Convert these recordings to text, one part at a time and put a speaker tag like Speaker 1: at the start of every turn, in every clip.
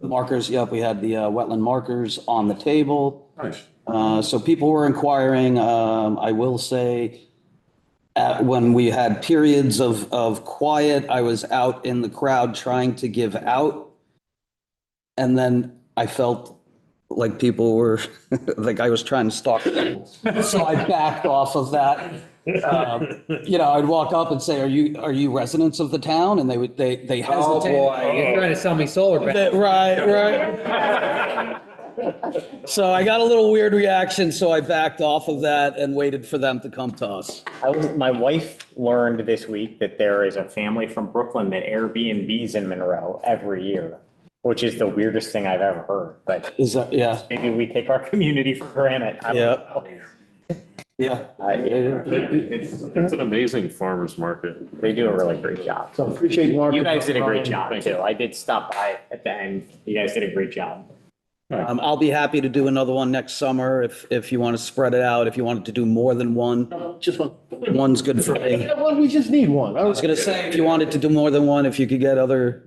Speaker 1: The markers, yep, we had the uh, wetland markers on the table.
Speaker 2: Nice.
Speaker 1: Uh, So people were inquiring, um, I will say, at- when we had periods of, of quiet, I was out in the crowd trying to give out. And then I felt like people were, like I was trying to stalk people. So I backed off of that. Um, You know, I'd walk up and say, are you, are you residents of the town? And they would, they, they
Speaker 3: Oh,
Speaker 1: hesitated.
Speaker 3: boy.
Speaker 4: You're trying to sell me solar panels.
Speaker 1: That- Right, right. So I got a little weird reaction, so I backed off of that and waited for them to come to us.
Speaker 5: I was, my wife learned this week that there is a family from Brooklyn that Airbnbs in Monroe every year, which is the weirdest thing I've ever heard, but
Speaker 1: Is that, yeah,
Speaker 5: maybe we take our community for granted. I don't
Speaker 1: Yeah.
Speaker 5: know. Uh,
Speaker 1: yeah.
Speaker 5: I-
Speaker 2: It's, it's an amazing farmer's market.
Speaker 5: They do a really great job.
Speaker 3: So appreciate Mark.
Speaker 5: You guys did a great job
Speaker 2: Thank you.
Speaker 5: too. I did stop by at the end. You guys did a great job.
Speaker 1: Um, I'll be happy to do another one next summer if, if you want to spread it out, if you wanted to do more than one.
Speaker 3: Just one.
Speaker 1: One's good for me. I
Speaker 3: Well, we just need one. I
Speaker 1: was gonna say, if you wanted to do more than one, if you could get other,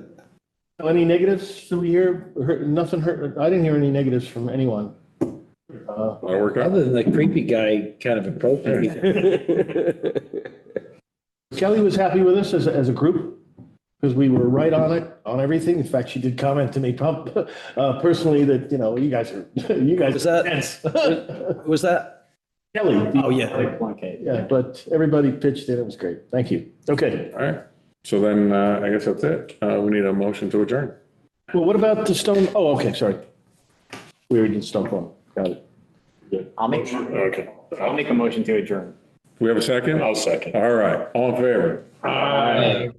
Speaker 3: Any negatives that we hear? Heard- Nothing hurt. I didn't hear any negatives from anyone. Uh,
Speaker 2: I work out.
Speaker 6: Other than the creepy guy kind of approaching me.
Speaker 3: Kelly was happy with us as, as a group because we were right on it, on everything. In fact, she did comment to me prob- uh, personally that, you know, you guys are, you guys.
Speaker 1: Was that-
Speaker 3: Yes.
Speaker 1: was that?
Speaker 3: Kelly.
Speaker 1: Oh, yeah.
Speaker 5: Okay.
Speaker 3: Yeah, but everybody pitched in. It was great. Thank you. Okay.
Speaker 2: All right. So then, uh, I guess that's it. Uh, we need a motion to adjourn.
Speaker 3: Well, what about the stone? Oh, okay, sorry. We already did stone farm. Got it.
Speaker 5: I'll make,
Speaker 2: Okay.
Speaker 5: I'll make a motion to adjourn.
Speaker 2: We have a second? I'll second. All right. All in favor?